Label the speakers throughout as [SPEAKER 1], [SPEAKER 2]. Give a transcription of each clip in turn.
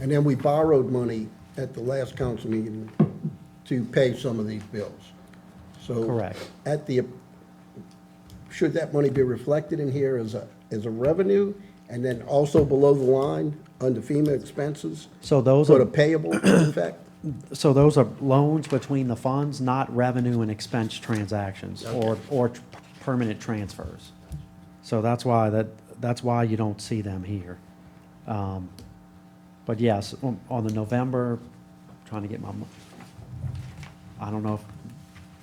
[SPEAKER 1] And then we borrowed money at the last council meeting to pay some of these bills. So.
[SPEAKER 2] Correct.
[SPEAKER 1] At the, should that money be reflected in here as a, as a revenue? And then also below the line, under FEMA expenses?
[SPEAKER 2] So those
[SPEAKER 1] Sort
[SPEAKER 2] are,
[SPEAKER 1] of payable effect?
[SPEAKER 2] so those are loans between the funds, not revenue and expense transactions or, or tr- permanent transfers. So that's why that, that's why you don't see them here. Um, But yes, on, on the November, trying to get my, mo- I don't know if,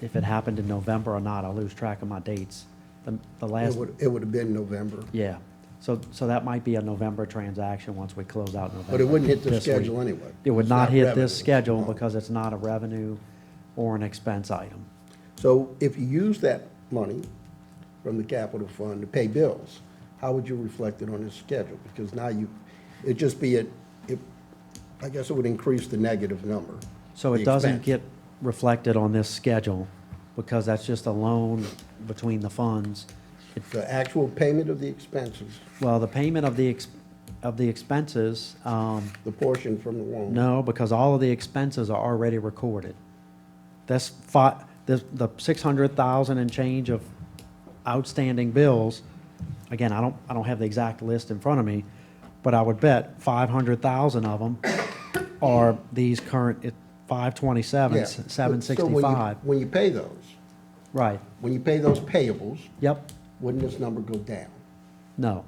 [SPEAKER 2] if it happened in November or not, I lose track of my dates. The, the
[SPEAKER 1] It
[SPEAKER 2] last,
[SPEAKER 1] would, it would have been November,
[SPEAKER 2] yeah, so, so that might be a November transaction once we close out November.
[SPEAKER 1] but it wouldn't hit the
[SPEAKER 2] this week.
[SPEAKER 1] schedule anyway.
[SPEAKER 2] It would
[SPEAKER 1] It's
[SPEAKER 2] not hit
[SPEAKER 1] revenue.
[SPEAKER 2] this schedule
[SPEAKER 1] No.
[SPEAKER 2] because it's not a revenue or an expense item.
[SPEAKER 1] So if you use that money from the capital fund to pay bills, how would you reflect it on this schedule? Because now you, it'd just be a, it, I guess it would increase the negative number.
[SPEAKER 2] So
[SPEAKER 1] the
[SPEAKER 2] it doesn't
[SPEAKER 1] expense.
[SPEAKER 2] get reflected on this schedule because that's just a loan between the funds. It-
[SPEAKER 1] The actual payment of the expenses,
[SPEAKER 2] Well, the payment of the, ex- of the expenses, um,
[SPEAKER 1] the portion from the loan.
[SPEAKER 2] no, because all of the expenses are already recorded. That's fi, the, the six hundred thousand and change of outstanding bills, again, I don't, I don't have the exact list in front of me, but I would bet five hundred thousand of them are these current, five
[SPEAKER 1] Yeah.
[SPEAKER 2] twenty-seven,
[SPEAKER 1] So-
[SPEAKER 2] seven
[SPEAKER 1] so when you-
[SPEAKER 2] sixty-five,
[SPEAKER 1] When you pay those,
[SPEAKER 2] right,
[SPEAKER 1] when you pay those payables,
[SPEAKER 2] yep,
[SPEAKER 1] wouldn't this number go down?
[SPEAKER 2] no.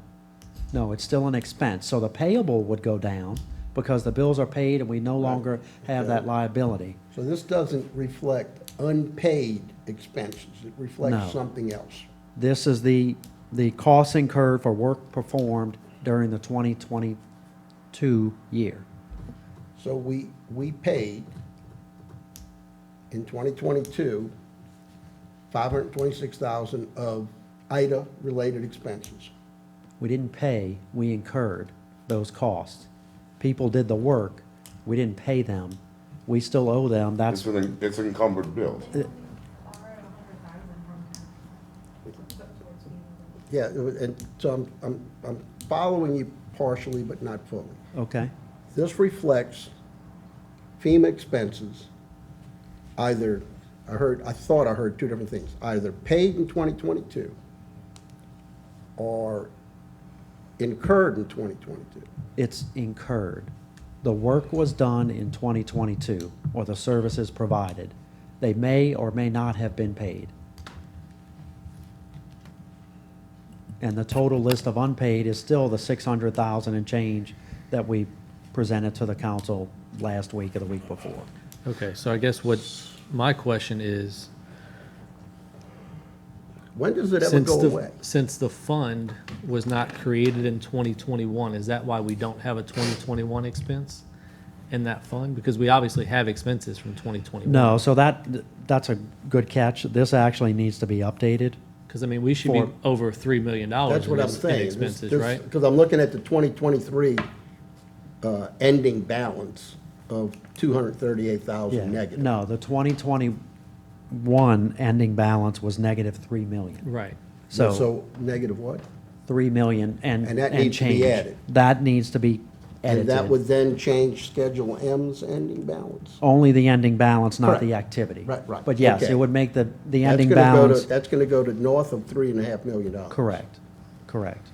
[SPEAKER 2] No, it's still an expense, so the payable would go down because the bills are paid and we no longer have that liability.
[SPEAKER 1] So this doesn't reflect unpaid expenses, it
[SPEAKER 2] No.
[SPEAKER 1] reflects something else.
[SPEAKER 2] This is the, the costs incurred for work performed during the 2022 year.
[SPEAKER 1] So we, we paid in 2022, 526,000 of IDA-related expenses.
[SPEAKER 2] We didn't pay, we incurred those costs. People did the work, we didn't pay them. We still owe them,
[SPEAKER 3] It's
[SPEAKER 2] that's,
[SPEAKER 3] an, it's encumbered bills.
[SPEAKER 1] Yeah, it was- and so I'm, I'm, I'm following you partially, but not fully.
[SPEAKER 2] okay,
[SPEAKER 1] This reflects FEMA expenses, either, I heard, I thought I heard two different things, either paid in 2022 or incurred in 2022.
[SPEAKER 2] it's incurred. The work was done in 2022, or the services provided. They may or may not have been paid. And the total list of unpaid is still the six hundred thousand and change that we presented to the council last week or the week before.
[SPEAKER 4] Okay, so I guess what my question is,
[SPEAKER 1] When does it ever
[SPEAKER 4] since
[SPEAKER 1] go
[SPEAKER 4] the,
[SPEAKER 1] away?
[SPEAKER 4] since the fund was not created in 2021, is that why we don't have a 2021 expense in that fund? Because we obviously have expenses from 2021.
[SPEAKER 2] No, so that, that's a good catch. This actually needs to be updated.
[SPEAKER 4] Because I mean, we should be
[SPEAKER 2] For-
[SPEAKER 4] over $3 million
[SPEAKER 1] That's
[SPEAKER 4] in
[SPEAKER 1] what I'm
[SPEAKER 4] ex- in
[SPEAKER 1] saying.
[SPEAKER 4] expenses, right?
[SPEAKER 1] Because I'm looking at the 2023 uh, ending balance of 238,000
[SPEAKER 2] Yeah,
[SPEAKER 1] negative.
[SPEAKER 2] no, the twenty twenty-one ending balance was negative three million.
[SPEAKER 4] Right.
[SPEAKER 2] So,
[SPEAKER 1] negative what?
[SPEAKER 2] three million and,
[SPEAKER 1] And that
[SPEAKER 2] and
[SPEAKER 1] needs to be
[SPEAKER 2] change.
[SPEAKER 1] added.
[SPEAKER 2] That needs to be
[SPEAKER 1] And that would
[SPEAKER 2] edited.
[SPEAKER 1] then change Schedule M's ending balance?
[SPEAKER 2] Only the ending balance, not the
[SPEAKER 1] Correct.
[SPEAKER 2] activity.
[SPEAKER 1] Right, right,
[SPEAKER 2] But yes,
[SPEAKER 1] okay.
[SPEAKER 2] it would make the, the
[SPEAKER 1] That's
[SPEAKER 2] ending
[SPEAKER 1] gonna go to-
[SPEAKER 2] balance,
[SPEAKER 1] That's going to go to north of three and a half million dollars.
[SPEAKER 2] correct, correct.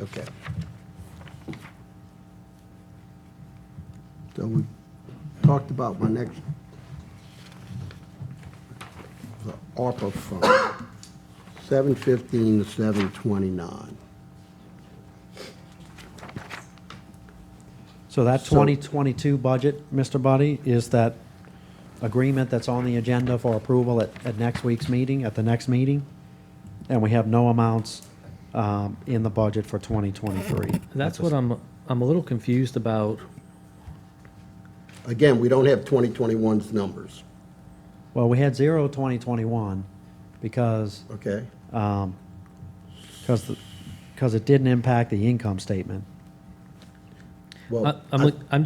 [SPEAKER 1] Okay. So we talked about my next, the ARPA fund, seven fifteen to seven twenty-nine.
[SPEAKER 2] So that
[SPEAKER 1] So-
[SPEAKER 2] 2022 budget, Mr. Buddy, is that agreement that's on the agenda for approval at, at next week's meeting, at the next meeting? And we have no amounts um, in the budget for 2023.
[SPEAKER 4] That's what I'm, I'm a little confused about.
[SPEAKER 1] Again, we don't have 2021's numbers,
[SPEAKER 2] Well, we had zero 2021 because,
[SPEAKER 1] okay?
[SPEAKER 2] because, because it didn't impact the income statement.
[SPEAKER 1] Well,
[SPEAKER 4] I- I'm, look- I'm